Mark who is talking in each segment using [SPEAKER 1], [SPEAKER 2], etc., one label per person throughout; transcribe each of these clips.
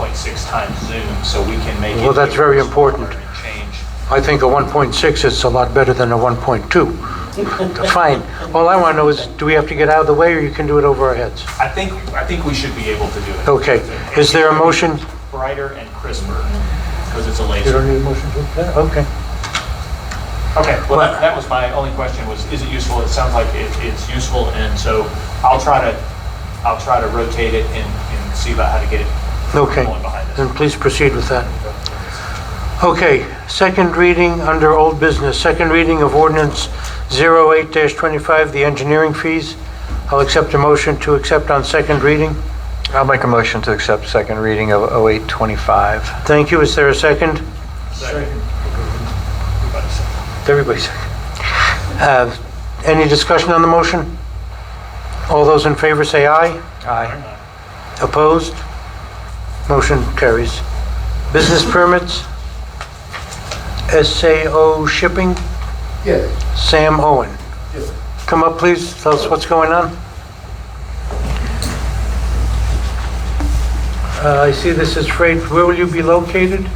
[SPEAKER 1] 1.6 times zoom, so we can make. it
[SPEAKER 2] Well, that's very important.
[SPEAKER 1] and Change.
[SPEAKER 2] I think the 1.6 is a lot better than the 1.2. Fine. All I want to know is, do we have to get out of the way, or you can do it over our heads?
[SPEAKER 1] I think, I think we should be able to do it.
[SPEAKER 2] Okay. Is there a motion?
[SPEAKER 1] Brighter and crisper, because it's a
[SPEAKER 2] You
[SPEAKER 1] laser.
[SPEAKER 2] don't need a motion to, yeah, okay.
[SPEAKER 1] Okay, well, that- that was my only question was, is it useful? It sounds like it, it's useful, and so I'll try to, I'll try to rotate it and, and see about how to get it
[SPEAKER 2] Okay. Mm.
[SPEAKER 1] going behind us.
[SPEAKER 2] Then please proceed with that. Okay, second reading under old business, second reading of ordinance 08-25, the engineering fees. I'll accept a motion to accept on second reading.
[SPEAKER 3] I'll make a motion to accept second reading of 0825.
[SPEAKER 2] Thank you. Is there a second?
[SPEAKER 1] Second.
[SPEAKER 2] Everybody second. Uh, Any discussion on the motion? All those in favor say aye.
[SPEAKER 3] Aye.
[SPEAKER 2] Opposed? Motion carries. Business permits? SAO Shipping,
[SPEAKER 4] Yes,
[SPEAKER 2] Sam Owen.
[SPEAKER 4] yes.
[SPEAKER 2] Come up, please, tell us what's going on. Uh, I see this is freight, where will you be located?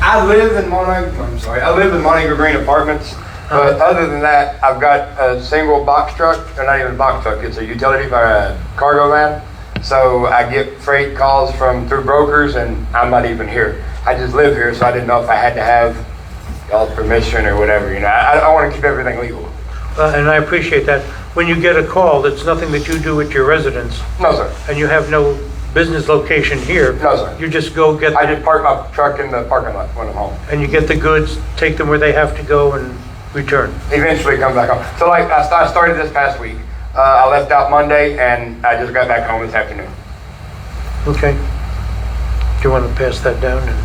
[SPEAKER 4] I live in Montague, I'm sorry, I live in Montague Green Apartments, but other than that, I've got a single box truck, or not even a box truck, it's a utility, uh, cargo van. So I get freight calls from, through brokers, and I'm not even here. I just live here, so I didn't know if I had to have y'all's permission or whatever, you know? I, I want to keep everything legal.
[SPEAKER 2] Uh, And I appreciate that. When you get a call, it's nothing that you do at your residence,
[SPEAKER 4] No, sir.
[SPEAKER 2] and you have no business location here.
[SPEAKER 4] No, sir.
[SPEAKER 2] You just go get,
[SPEAKER 4] I
[SPEAKER 2] the-
[SPEAKER 4] just park my truck in the parking lot when I'm home.
[SPEAKER 2] and you get the goods, take them where they have to go and return.
[SPEAKER 4] eventually come back home. So like I sta- I started this past week. Uh, I left out Monday and I just got back home this afternoon.
[SPEAKER 2] Okay. Do you want to pass that down? And-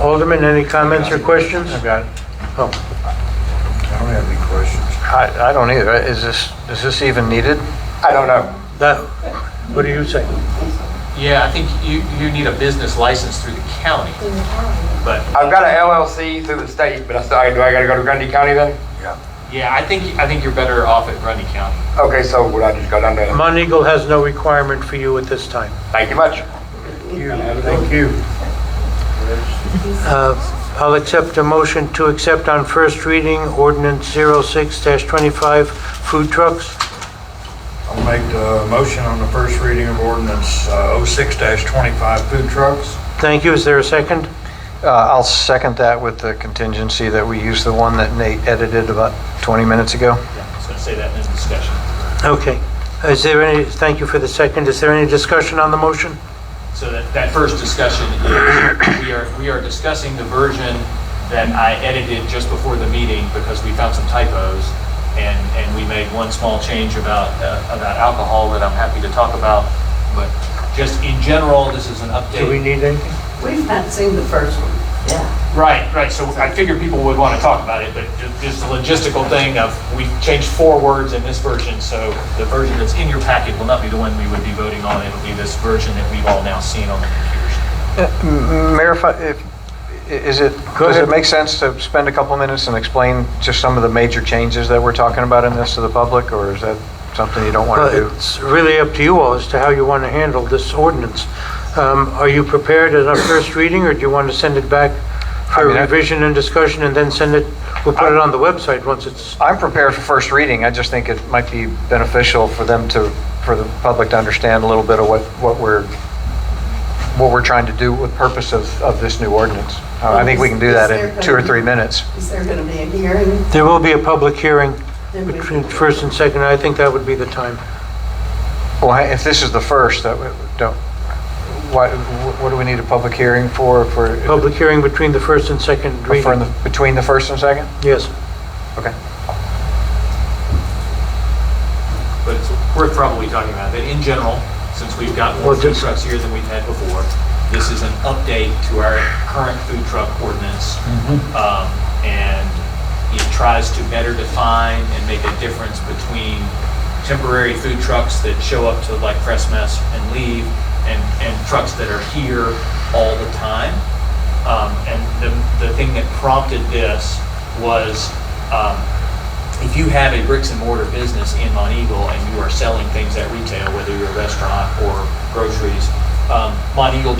[SPEAKER 2] Alderman, any comments or questions?
[SPEAKER 3] I've got it.
[SPEAKER 2] Oh,
[SPEAKER 5] I don't have any questions.
[SPEAKER 3] I I don't either. Is this, is this even needed?
[SPEAKER 4] I don't know.
[SPEAKER 2] that, what do you say?
[SPEAKER 1] Yeah, I think you, you need a business license through the county, but
[SPEAKER 4] I've got an LLC through the state, but I still, do I gotta go to Grundy County then?
[SPEAKER 1] yeah, I think, I think you're better off at Grundy County.
[SPEAKER 4] Okay, so would I just go down there?
[SPEAKER 2] Mount Eagle has no requirement for you at this time.
[SPEAKER 4] Thank you much.
[SPEAKER 2] Thank you. I'll accept a motion to accept on first reading ordinance 06-25, food trucks.
[SPEAKER 5] I'll make the motion on the first reading of ordinance uh, 06-25 food trucks.
[SPEAKER 2] Thank you. Is there a second?
[SPEAKER 3] Uh, I'll second that with the contingency that we use the one that Nate edited about 20 minutes ago.
[SPEAKER 1] Yeah, I was gonna say that in the discussion.
[SPEAKER 2] Okay. Is there any, thank you for the second. Is there any discussion on the motion?
[SPEAKER 1] So that, that first discussion is, we are, we are discussing the version that I edited just before the meeting because we found some typos and, and we made one small change about, uh, about alcohol that I'm happy to talk about. But just in general, this is an update.
[SPEAKER 2] Do we need anything?
[SPEAKER 6] We've not seen the first one. Yeah.
[SPEAKER 1] Right, right, so I figured people would want to talk about it, but ju- just the logistical thing of, we changed four words in this version, so the version that's in your packet will not be the one we would be voting on, it'll be this version that we've all now seen on the computers.
[SPEAKER 3] Mayor, if I- if, is it, does
[SPEAKER 2] ahead.
[SPEAKER 3] it make sense to spend a couple minutes and explain just some of the major changes that we're talking about in this to the public, or is that something you don't want to do?
[SPEAKER 2] Well, It's really up to you all as to how you want to handle this ordinance. Um, Are you prepared at our first reading, or do you want to send it back for
[SPEAKER 3] I mean, I-
[SPEAKER 2] revision and discussion, and then send it, we'll put it on the website once it's
[SPEAKER 3] I'm prepared for first reading, I just think it might be beneficial for them to, for the public to understand a little bit of what, what we're, what we're trying to do with purpose of, of this new ordinance. Uh, I think we can do that in two or three minutes.
[SPEAKER 6] Is there going to be a hearing?
[SPEAKER 2] There will be a public hearing
[SPEAKER 6] Then we-
[SPEAKER 2] between first and second, I think that would be the time.
[SPEAKER 3] Well, if this is the first, that, we- don't, what, what do we need a public hearing for, for?
[SPEAKER 2] Public hearing between the first and second
[SPEAKER 3] for in
[SPEAKER 2] reading.
[SPEAKER 3] the- Between the first and second?
[SPEAKER 2] Yes.
[SPEAKER 3] Okay.
[SPEAKER 1] But it's worth probably talking about that in general, since we've got more
[SPEAKER 2] Well,
[SPEAKER 1] food
[SPEAKER 2] just-
[SPEAKER 1] trucks here than we've had before. This is an update to our current food truck ordinance.
[SPEAKER 2] Mm-hmm.
[SPEAKER 1] Um, And it tries to better define and make a difference between temporary food trucks that show up to like Fresh Mess and leave and, and trucks that are here all the time. Um, And the, the thing that prompted this was, um, if you have a bricks and mortar business in Mont Eagle and you are selling things at retail, whether you're a restaurant or groceries, um, Monteagle